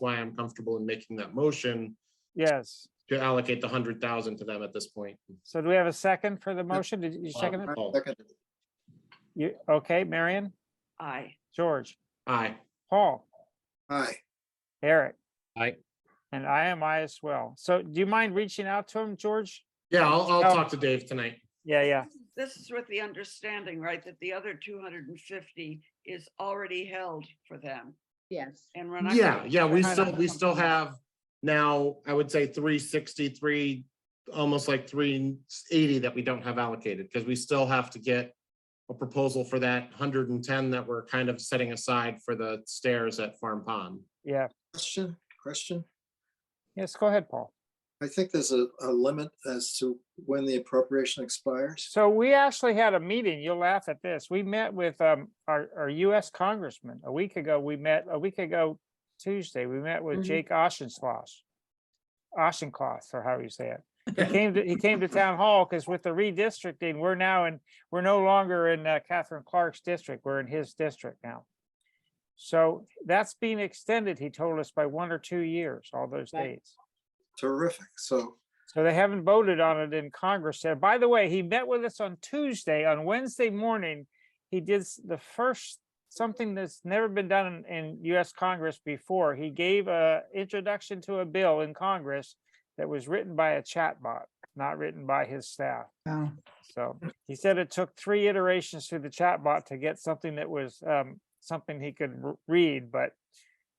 why I'm comfortable in making that motion Yes. to allocate the hundred thousand to them at this point. So do we have a second for the motion? Did you second it? Paul, You, okay, Marion, Aye. George, Aye, Paul, Aye. Eric. Aye. And I am I as well. So do you mind reaching out to him, George? yeah, I'll, I'll Oh. talk to Dave tonight. Yeah, yeah. This is with the understanding, right, that the other two hundred and fifty is already held for them Yes. and we're not. Yeah, gonna- yeah, we we're not still, we gonna- still have now, I would say three sixty-three, almost like three eighty that we don't have allocated, because we still have to get a proposal for that hundred and ten that we're kind of setting aside for the stairs at Farm Pond. Yeah. Question, question. Yes, go ahead, Paul. I think there's a, a limit as to when the appropriation expires. So we actually had a meeting. You'll laugh at this. We met with um our our US Congressman a week ago. We met a week ago Tuesday. We met with Mhm. Jake Oshenslosh. Oshenslosh, or how you say it. He came to, he came to town hall because with the redistricting, we're now in, we're no longer in uh, Catherine Clark's district. We're in his district now. So that's being extended, he told us, by one or two years, all those Right. dates. Terrific. So So they haven't voted on it in Congress yet. By the way, he met with us on Tuesday. On Wednesday morning, he did s- the first, something that's never been done in, in US Congress before. He gave a introduction to a bill in Congress that was written by a chatbot, not written by his staff. Wow. So he said it took three iterations through the chatbot to get something that was um, something he could r- read, but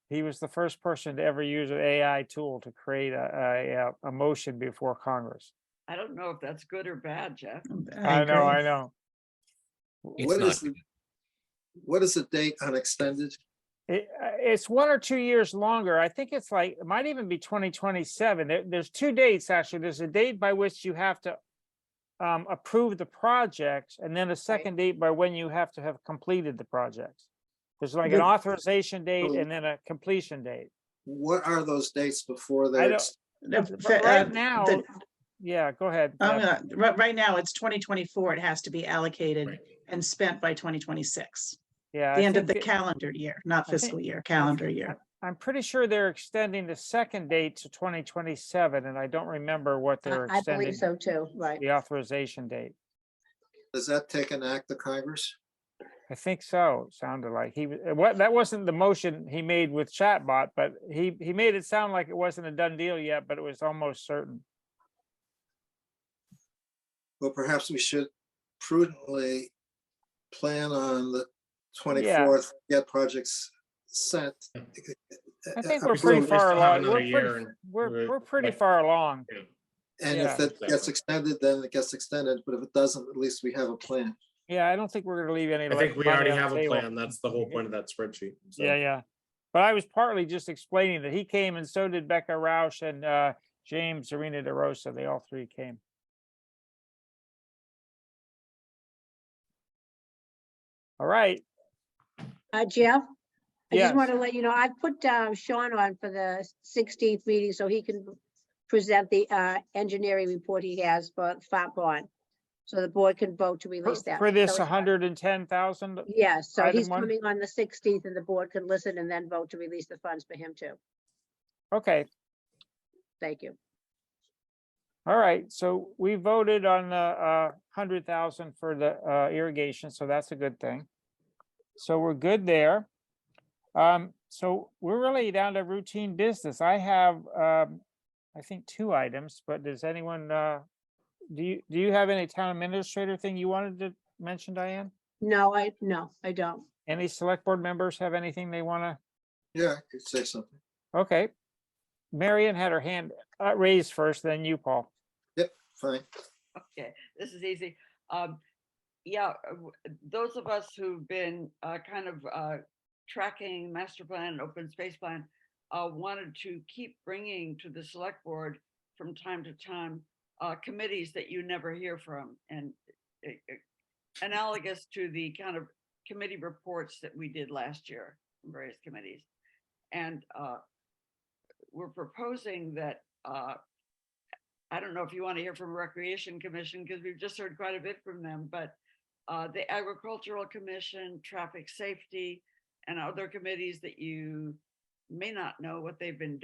he was the first person to ever use an AI tool to create a, a, a motion before Congress. I don't know if that's good or bad, Jeff. I know, I know. It's what not is, the- what is the date on extended? It, uh, it's one or two years longer. I think it's like, it might even be twenty twenty-seven. There, there's two dates, actually. There's a date by which you have to um, approve the projects, and then a second date by when you have to have completed the projects. There's like an But- authorization date Oh. and then a completion date. What are those dates before I they're? don't- ex- The- But for, uh, right now, the- yeah, go ahead. I'm Deb. gonna- Right, right now, it's twenty twenty-four. It has to be allocated Right. and spent by twenty twenty-six, Yeah. the I end of the think it- calendar year, not I think- fiscal year, calendar think- year. I'm pretty sure they're extending the second date to twenty twenty-seven, and I don't remember what they're I believe extending so too, right. the authorization date. Does that take an act of Congress? I think so, it sounded like he, w- uh, what, that wasn't the motion he made with chatbot, but he, he made it sound like it wasn't a done deal yet, but it was almost certain. Well, perhaps we should prudently plan on the twenty-fourth, get projects sent. I think Uh, we're we still- pretty we approved. far still have along. another We're year pretty, and we're, we're- we're pretty like- far along. And yeah. if that gets Exactly. extended, then it gets extended, but if it doesn't, at least we have a plan. Yeah, I don't think we're gonna leave any. I think like we money already on the have a table. plan. That's the whole point of that spreadsheet. so. Yeah, yeah. But I was partly just explaining that he came and so did Becca Roush and uh, James Arena DeRosa. They all three came. All right. Uh, Jeff? I Yes. just want to let you know, I put uh, Sean on for the sixteenth meeting so he can present the uh, engineering report he has for Fat Bond. So the board can vote to For- release that. For this So- hundred and ten thousand, Yes, so item he's one? coming on the sixteenth and the board can listen and then vote to release the funds for him too. okay, Thank you. all right. So we voted on the uh hundred thousand for the uh irrigation, so that's a good thing. So we're good there. Um, so we're really down to routine business. I have, um, I think two items, but does anyone, uh, do you, do you have any town administrator thing you wanted to mention, Diane? No, I, no, I don't. Any select board members have anything they want Yeah, I could say something. to? Okay. Marion had her hand uh, raised first, then you, Paul. Fine. Okay, this is easy. Um, yeah, uh, w- those of us who've been uh, kind of uh, tracking master plan, open space plan, uh, wanted to keep bringing to the select board from time to time uh, committees that you never hear from and uh, uh, analogous to the kind of committee reports that we did last year, from various committees. And uh, we're proposing that uh, I don't know if you want to hear from Recreation Commission because we've just heard quite a bit from them, but uh, the Agricultural Commission, Traffic Safety, and other committees that you may not know what they've been